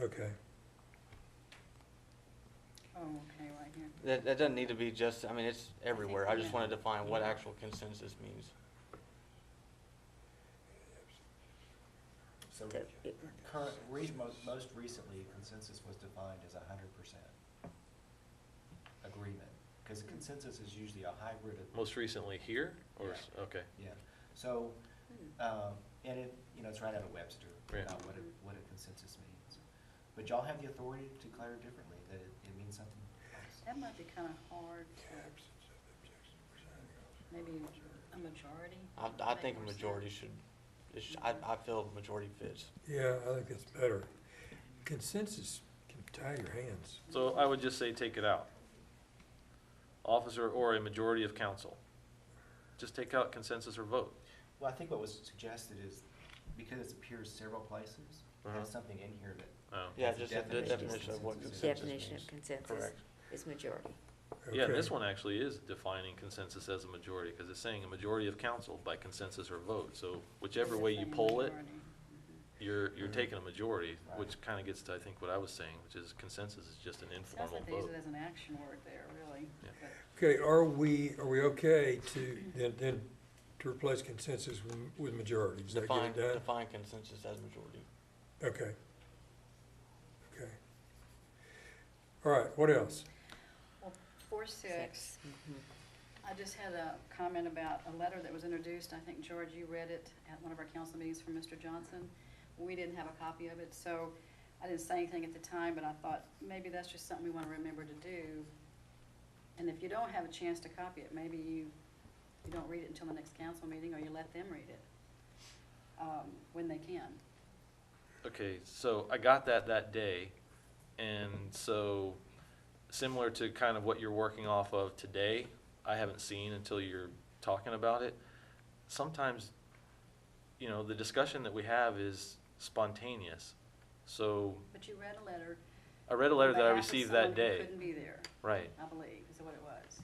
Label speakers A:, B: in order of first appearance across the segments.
A: Okay,
B: Oh, okay, right here.
C: That, that doesn't need to be just, I mean, it's everywhere. I just
B: yeah.
C: want to define what
B: Yeah.
C: actual consensus means.
D: So
E: That it-
D: current, re- mo- most recently, consensus was defined as a hundred percent agreement, because consensus is usually a hybrid of.
F: Most recently here, or, s- okay,
D: Yeah, so,
B: Hmm.
D: um, and it, you know, it's right out of Webster,
F: Yeah.
D: about what a, what a consensus means. But y'all have the authority to declare it differently, that it, it means something else.
B: That might be kind of hard to, maybe a majority?
C: I,
B: would
C: I
B: make
C: think a
B: more sense.
C: majority should, it sh- I, I feel majority fits.
A: yeah, I think that's better. Consensus can tie your hands.
F: so I would just say take it out. Officer or a majority of council. Just take out consensus or vote.
D: Well, I think what was suggested is, because it appears several places,
F: Uh-huh.
D: have something in here that
F: Oh.
C: Yeah, just
D: That's the
C: the de-
D: definition.
C: definition of what
D: Consensus.
C: consensus means.
E: Definition of consensus
C: Correct.
E: is majority.
F: Yeah, and
A: Okay.
F: this one actually is defining consensus as a majority, because it's saying a majority of council by consensus or vote, so whichever
B: It's a
F: way you
B: plain
F: poll it,
B: majority. Mhm.
F: you're, you're taking a majority,
D: Mm-hmm. Right.
F: which kinda gets to, I think, what I was saying, which is consensus is just an
B: Sounds
F: informal
B: like they use
F: vote.
B: it as an action word there, really.
F: Yeah.
B: but-
A: Okay, are we, are we okay to, then, then to replace consensus with, with majority? Does that get
C: Define,
A: it done?
C: define consensus as majority.
A: Okay. Okay. All right, what else?
B: Well, four six,
E: Six. Mhm.
B: I just had a comment about a letter that was introduced, I think, George, you read it at one of our council meetings from Mr. Johnson. We didn't have a copy of it, so I didn't say anything at the time, but I thought maybe that's just something we want to remember to do. And if you don't have a chance to copy it, maybe you, you don't read it until the next council meeting, or you let them read it, um, when they can.
F: Okay, so I got that that day, and so similar to kind of what you're working off of today, I haven't seen until you're talking about it. Sometimes, you know, the discussion that we have is spontaneous. So
B: But you read a letter.
F: I read a letter
B: on
F: that I
B: behalf of
F: received
B: someone
F: that
B: who
F: day.
B: Couldn't be there.
F: Right.
B: I believe, is what it was.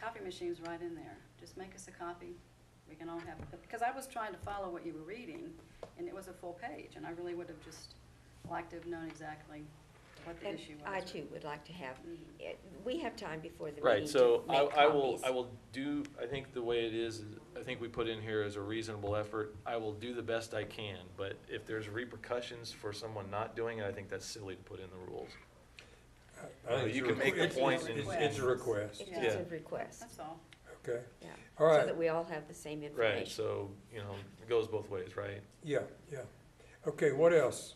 B: Copy machine's right in there. Just make us a copy. We can all have, because I was trying to follow what you were reading, and it was a full page, and I really would have just liked to have known exactly what the
E: And
B: issue was.
E: I too would like to have,
B: Mhm.
E: it- we have time before the meeting
F: Right,
E: to
F: so I,
E: make
F: I will,
E: copies.
F: I will do, I think the way it is, is I think we put in here as a reasonable effort, I will do the best I can, but if there's repercussions for someone not doing it, I think that's silly to put in the rules.
A: I- I think it's
F: You
A: a
F: can make the
A: request.
F: point
A: It's-
B: and-
A: It's a request,
E: It's
B: Yeah.
E: just a request,
B: That's all.
A: okay,
E: yeah.
A: All right.
E: So that we all have the same information.
F: Right, so, you know, it goes both ways, right?
A: yeah, yeah. Okay, what else?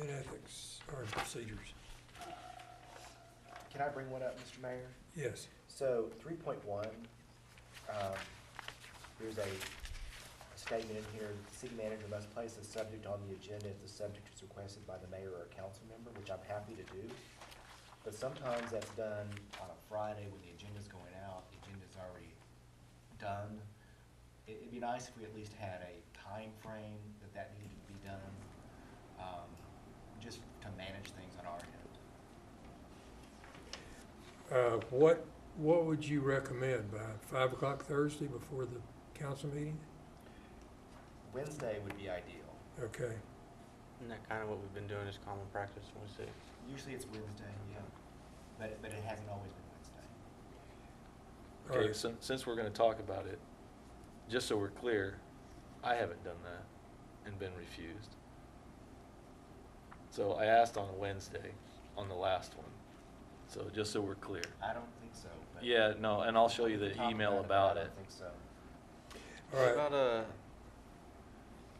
A: In ethics or procedures,
D: Can I bring one up, Mr. Mayor?
A: yes,
D: So three point one, um, there's a statement in here, the city manager must place the subject on the agenda if the subject is requested by the mayor or a council member, which I'm happy to do. But sometimes that's done on a Friday when the agenda's going out, the agenda's already done. It, it'd be nice if we at least had a time frame that that needed to be done, um, just to manage things on our
A: uh,
D: end.
A: what, what would you recommend by five o'clock Thursday before the council meeting?
D: Wednesday would be ideal.
A: Okay,
C: Isn't that kind of what we've been doing is common practice when we say?
D: Usually it's Wednesday, yeah, but, but it hasn't always been Wednesday.
A: all
F: Okay,
A: right.
F: since, since we're gonna talk about it, just so we're clear, I haven't done that and been refused. So I asked on a Wednesday, on the last one, so just so we're clear.
D: I don't think so, but.
F: Yeah, no, and I'll show you
D: We
F: the
D: can talk
F: email
D: I
F: about
D: don't
F: it.
D: think so.
A: All right.
C: What about, uh,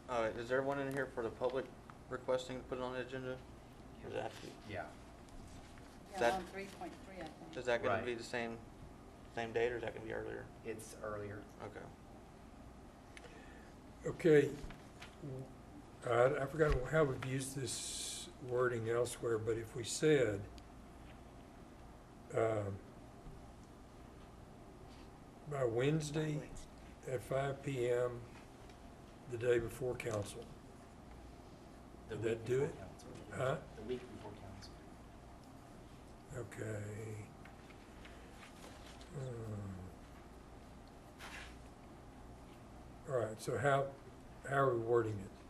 C: uh, is there one in here for the public requesting to put it on the agenda? Or Does that, have to be-
D: Yeah,
B: Yeah,
C: That-
B: on three point three, I think.
C: is that gonna
D: Right.
C: be the same, same date or is that gonna be earlier?
D: it's earlier.
C: Okay.
A: Okay, I, I forgot how we've used this wording elsewhere, but if we said, um, by Wednesday at five PM, the day before council,
D: The
A: Did that
D: week
A: do
D: before
A: it?
D: council.
A: Huh?
D: The week before council.
A: okay. Hmm. All right, so how, how are we wording it?